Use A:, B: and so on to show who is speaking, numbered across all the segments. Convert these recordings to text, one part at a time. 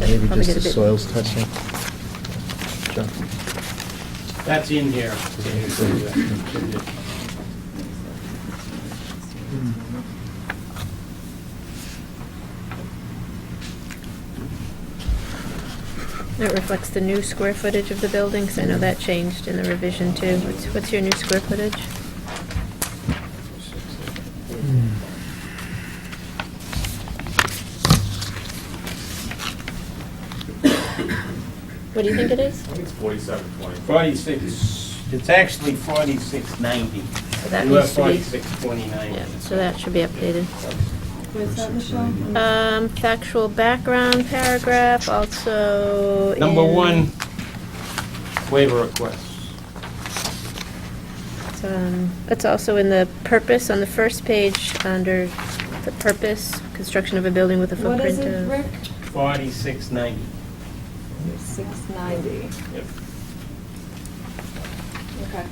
A: Maybe
B: Probably
A: just
B: get a
A: the
B: bit-
A: soils touching. John?
C: That's in here.
B: It reflects the new square footage of the buildings. I know that changed in the revision too. What's, what's your new square footage? What do you think it is?
D: I think it's forty-seven twenty-five.
C: Forty-six, it's actually forty-six ninety.
B: So that
C: You have
B: needs to be-
C: forty-six twenty-nine.
B: Yeah, so that should be updated.
E: Where's that, Uh, Michelle?
B: Um, factual background paragraph also
C: Number
B: in-
C: one, waiver request.
B: It's, um, It's also in the purpose, on the first page, under the purpose, construction of a building with a
E: What is
B: footprint
E: it, Rick?
B: of.
C: Forty-six ninety.
E: Six ninety, okay.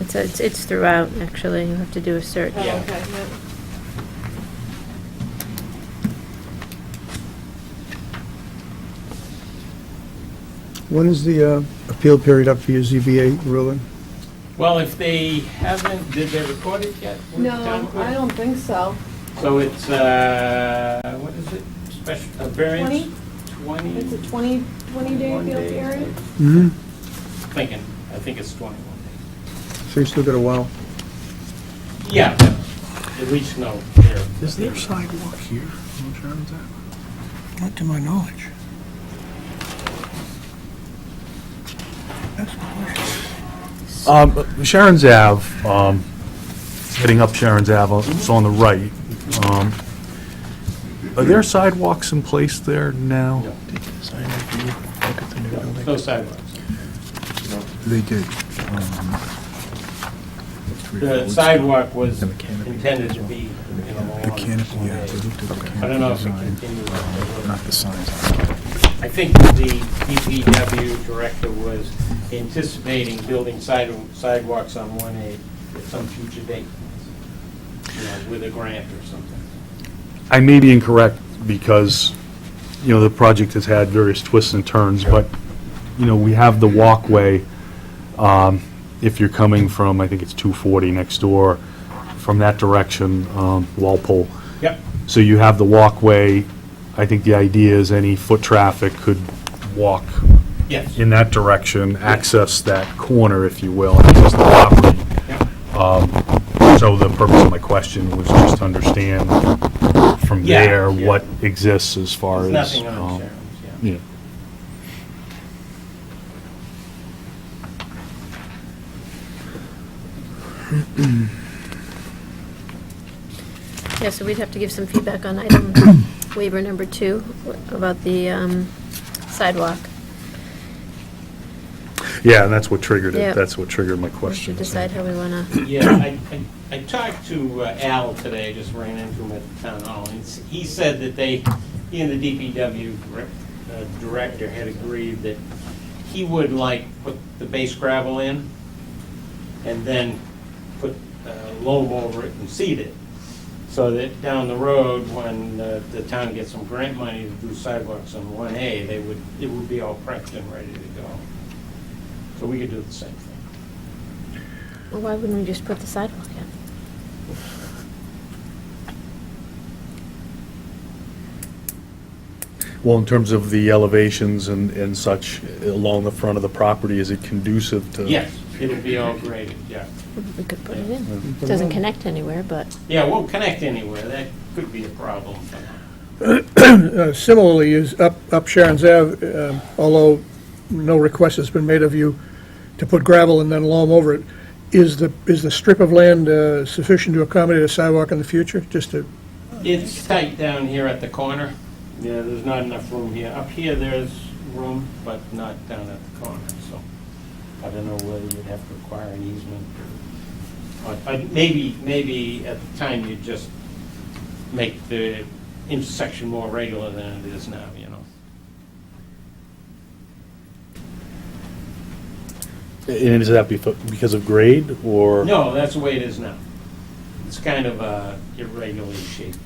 B: It's, it's it's throughout, actually, you have to do a search.
E: Oh,
C: Yeah.
E: okay, yep.
F: When is the uh, appeal period up for your ZBA ruling?
C: Well, if they haven't, did they record it yet? with the town
E: No,
C: clerk?
E: I don't think so.
C: So it's, uh, what is it, special, a variance? Twenty?
E: It's a 20 20 day
C: One
E: field
C: day.
E: period?
F: Mm-hmm.
C: Thinking, I think it's twenty-one days.
F: So you still got a while.
C: Yeah, but at least no. they're-
F: sidewalk here on Sharon's Not to my knowledge.
D: Um, Sharon's Ave, um, heading up Sharon's Ave, it's on the right. Um, Are there sidewalks in place there now?
C: No,
A: Take the design review, look at the new building.
C: No sidewalks.
G: They did. um, three
C: The
G: roads.
C: sidewalk was
A: The canopy.
C: intended to be, you know,
G: The
C: along
G: canopy,
C: the
G: yeah,
C: way.
G: they looked at the canopy.
C: I don't know if it
G: design,
C: continues. up the road.
G: Not the signs. I don't know.
C: I think the DPW director was anticipating building side- sidewalks on one A at some future date, you know, with a grant or something.
D: I may be incorrect because, you know, the project has had various twists and turns, but, you know, we have the walkway, um, if you're coming from, I think it's 240 next door, from that direction, um, Walpole.
C: Yep.
D: So you have the walkway. I think the idea is any foot traffic could walk
C: Yes.
D: in that direction, access that corner, if you will, access the property.
C: Yep.
D: So the purpose of my question was just to understand from
C: Yeah,
D: there
C: yeah.
D: what exists as far
C: There's
D: as.
C: nothing
D: um,
C: on Sharon's, yeah.
D: Yeah.
B: Yeah, so we'd have to give some feedback on item waiver number two about the um, sidewalk.
D: Yeah, and that's what triggered
B: Yeah.
D: it. That's what triggered my
B: We
D: question.
B: should decide how we want to,
C: Yeah, I, I- I talked to uh, Al today, I just ran into him at the town hall, and s- he said that they, he and the DPW dir- uh, director had agreed that he would like put the base gravel in and then put uh, loam over it and seed it, so that down the road, when uh, the town gets some grant money to do sidewalks on one A, they would, it would be all prepped and ready to go. So we could do the same thing.
B: well, why wouldn't we just put the sidewalk in?
D: Well, in terms of the elevations and, and such along the front of the property, is it conducive to?
C: Yes, it'll be all graded, yeah.
B: We could put it in. It Doesn't connect anywhere, but
C: Yeah, it won't connect anywhere, that could be a problem.
F: Uh, Similarly, is up up Sharon's Ave, um, although no request has been made of you to put gravel and then loam over it, is the, is the strip of land uh, sufficient to accommodate a sidewalk in the future, just to,
C: It's tight down here at the corner, yeah, there's not enough room here. Up here, there's room, but not down at the corner, so I don't know whether you'd have to acquire an easement. or- or- or Maybe, maybe at the time you'd just make the intersection more regular than it is now, you know?
D: And is that befo- because of grade or?
C: No, that's the way it is now. It's kind of uh, irregularly shaped.